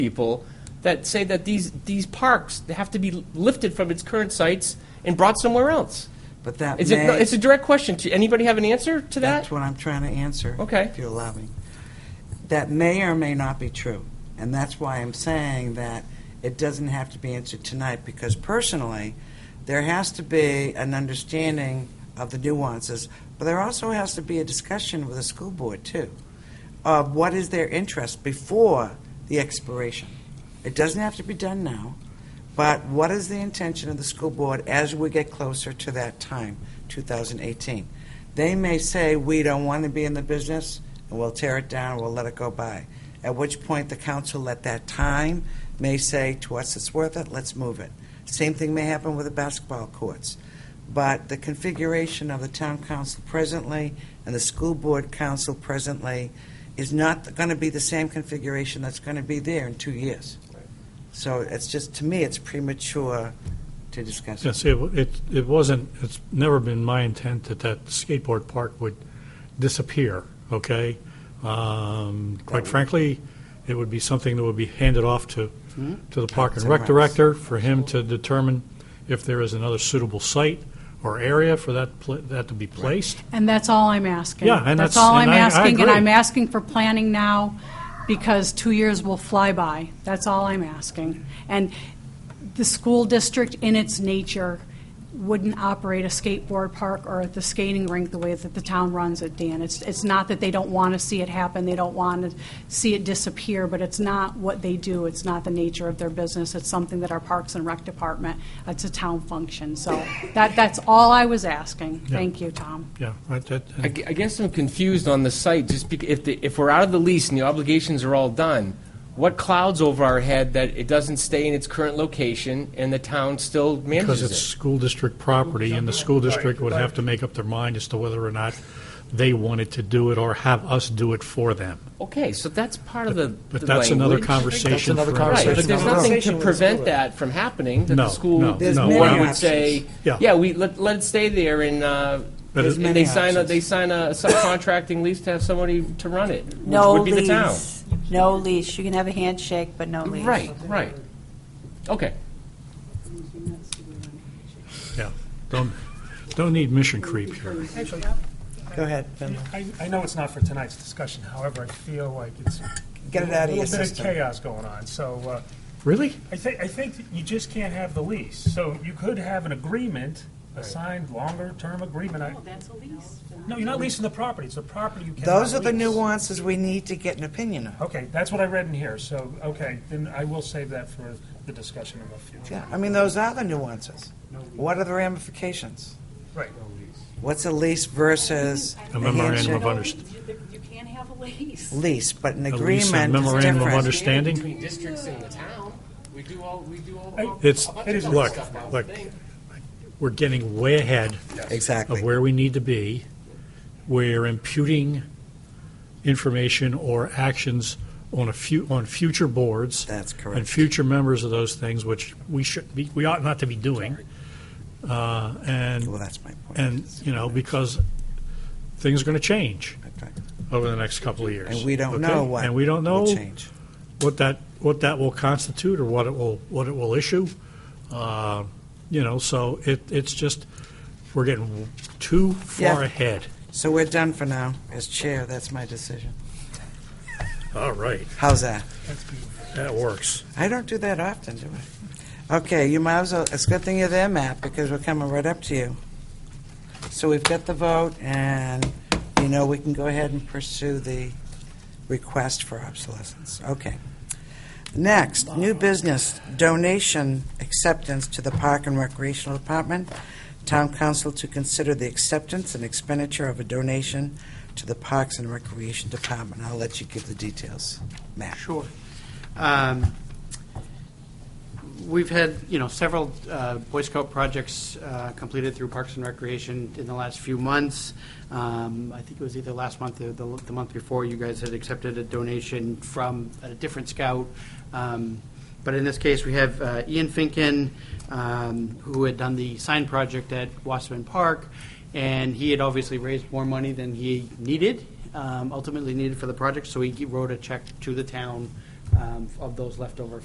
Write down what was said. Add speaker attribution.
Speaker 1: people that say that these, these parks have to be lifted from its current sites and brought somewhere else.
Speaker 2: But that
Speaker 1: It's a,
Speaker 2: may,
Speaker 1: it's a direct question. Do- Anybody have an answer to that?
Speaker 2: that's what I'm trying to answer.
Speaker 1: Okay.
Speaker 2: If you allow me. That may or may not be true. And that's why I'm saying that it doesn't have to be answered tonight, because personally, there has to be an understanding of the nuances, but there also has to be a discussion with the school board, too, of what is their interest before the expiration. It doesn't have to be done now, but what is the intention of the school board as we get closer to that time, 2018? They may say, we don't want to be in the business, and we'll tear it down, we'll let it go by. At which point, the council at that time may say, to us, it's worth it, let's move it. Same thing may happen with the basketball courts. But the configuration of the town council presently and the school board council presently is not going to be the same configuration that's going to be there in two years. So it's just, to me, it's premature to discuss.
Speaker 3: Yes, it, it, it wasn't, it's never been my intent that that skateboard park would disappear, okay? Um, Quite frankly, it would be something that would be handed off to, to the Park
Speaker 2: Parks
Speaker 3: and
Speaker 2: and
Speaker 3: Rec
Speaker 2: Recs.
Speaker 3: Director for him to determine if there is another suitable site or area for that, pla- that to be placed.
Speaker 4: And that's all I'm asking.
Speaker 3: Yeah, and that's-
Speaker 4: all I'm
Speaker 3: and I- I
Speaker 4: asking, and
Speaker 3: agree.
Speaker 4: I'm asking for planning now, because two years will fly by. That's all I'm asking. And the school district, in its nature, wouldn't operate a skateboard park or the skating rink the way that the town runs it, Dan. It's, it's not that they don't want to see it happen, they don't want to see it disappear, but it's not what they do, it's not the nature of their business, it's something that our Parks and Rec Department, it's a town function. So that, that's all I was asking. Thank you, Tom.
Speaker 3: Yeah, right, that,
Speaker 1: I
Speaker 3: and
Speaker 1: gu- I guess I'm confused on the site, just bec if, the- if we're out of the lease and the obligations are all done, what clouds over our head that it doesn't stay in its current location and the town still
Speaker 3: because it's
Speaker 1: manages it?
Speaker 3: school district property, and the school district would have to make up their mind as to whether or not they wanted to do it or have us do it for them.
Speaker 1: Okay, so that's part of the
Speaker 3: But
Speaker 1: the
Speaker 3: that's another
Speaker 1: language.
Speaker 3: conversation.
Speaker 5: another
Speaker 3: for-
Speaker 1: Right, but
Speaker 5: conversation.
Speaker 1: there's
Speaker 5: Right.
Speaker 1: nothing to prevent that from happening, that the
Speaker 3: No,
Speaker 1: school
Speaker 3: no,
Speaker 2: There's no.
Speaker 1: board
Speaker 2: many
Speaker 1: would
Speaker 2: options.
Speaker 1: say,
Speaker 3: Yeah.
Speaker 1: yeah, we, let, let it stay there and, uh,
Speaker 3: But it-
Speaker 1: and they
Speaker 2: many
Speaker 1: sign a,
Speaker 2: options.
Speaker 1: they sign a subcontracting lease to have somebody to run it, which
Speaker 6: No
Speaker 1: would be the town.
Speaker 6: leash. No leash. You can have a handshake, but no leash.
Speaker 1: Right, right. Okay.
Speaker 3: Yeah, don't, don't need mission creep here.
Speaker 2: Go ahead, Ben.
Speaker 7: I, I know it's not for tonight's discussion, however, I feel like it's.
Speaker 2: Get it out of your
Speaker 7: A little bit
Speaker 2: system.
Speaker 7: of chaos going on, so, uh,
Speaker 3: Really?
Speaker 7: I think, I think that you just can't have the lease. So you could have an agreement, a signed longer-term agreement. I-
Speaker 4: That's a lease.
Speaker 7: No, you're not leasing the property, it's the property you cannot
Speaker 2: Those are the
Speaker 7: lease.
Speaker 2: nuances we need to get an opinion on.
Speaker 7: Okay, that's what I read in here, so, okay, then I will save that for the discussion in the future.
Speaker 2: Yeah, I mean, those are the nuances. What are the ramifications?
Speaker 7: Right.
Speaker 2: What's a lease versus
Speaker 3: A
Speaker 2: a
Speaker 3: memorandum of
Speaker 2: handshake?
Speaker 3: understanding.
Speaker 4: You can't have a lease.
Speaker 2: Lease, but an
Speaker 3: A lease and
Speaker 2: agreement is
Speaker 3: memorandum of
Speaker 2: different.
Speaker 3: understanding?
Speaker 1: Between districts and the town, we do all, we do all.
Speaker 7: Hey,
Speaker 1: all-
Speaker 3: It's,
Speaker 1: a bunch of other
Speaker 3: look,
Speaker 1: stuff now.
Speaker 3: look, we're getting way ahead of
Speaker 2: Exactly.
Speaker 3: where we need to be. We're imputing information or actions on a few, on future boards.
Speaker 2: That's
Speaker 3: And
Speaker 2: correct.
Speaker 3: future members of those things, which we should be, we ought not to be doing. Uh,
Speaker 2: Well,
Speaker 3: And,
Speaker 2: that's my point.
Speaker 3: and, you know, because things are going to change
Speaker 2: That's right.
Speaker 3: over the next couple of years.
Speaker 2: And we don't
Speaker 3: okay?
Speaker 2: know what
Speaker 3: And we don't know
Speaker 2: will change.
Speaker 3: what that, what that will constitute or what it will, what it will issue. Uh, You know, so it, it's just, we're getting too far
Speaker 2: Yeah.
Speaker 3: ahead.
Speaker 2: So we're done for now. As chair, that's my decision.
Speaker 3: All right,
Speaker 2: How's that?
Speaker 3: that works.
Speaker 2: I don't do that often, do I? Okay, you might as well, it's a good thing you're there, Matt, because we're coming right up to you. So we've got the vote, and, you know, we can go ahead and pursue the request for obsolescence. Okay. Next, new business, donation acceptance to the Park and Recreational Department. Town Council to consider the acceptance and expenditure of a donation to the Parks and Recreation Department. I'll let you give the details, Matt.
Speaker 5: Sure. Um, We've had, you know, several uh, Boy Scout projects uh, completed through Parks and Recreation in the last few months. Um, I think it was either last month or the the month before, you guys had accepted a donation from a different scout. Um, But in this case, we have uh, Ian Finken, um, who had done the sign project at Wasserman Park, and he had obviously raised more money than he needed, um, ultimately needed for the project, so he wrote a check to the town uh, um, of those leftover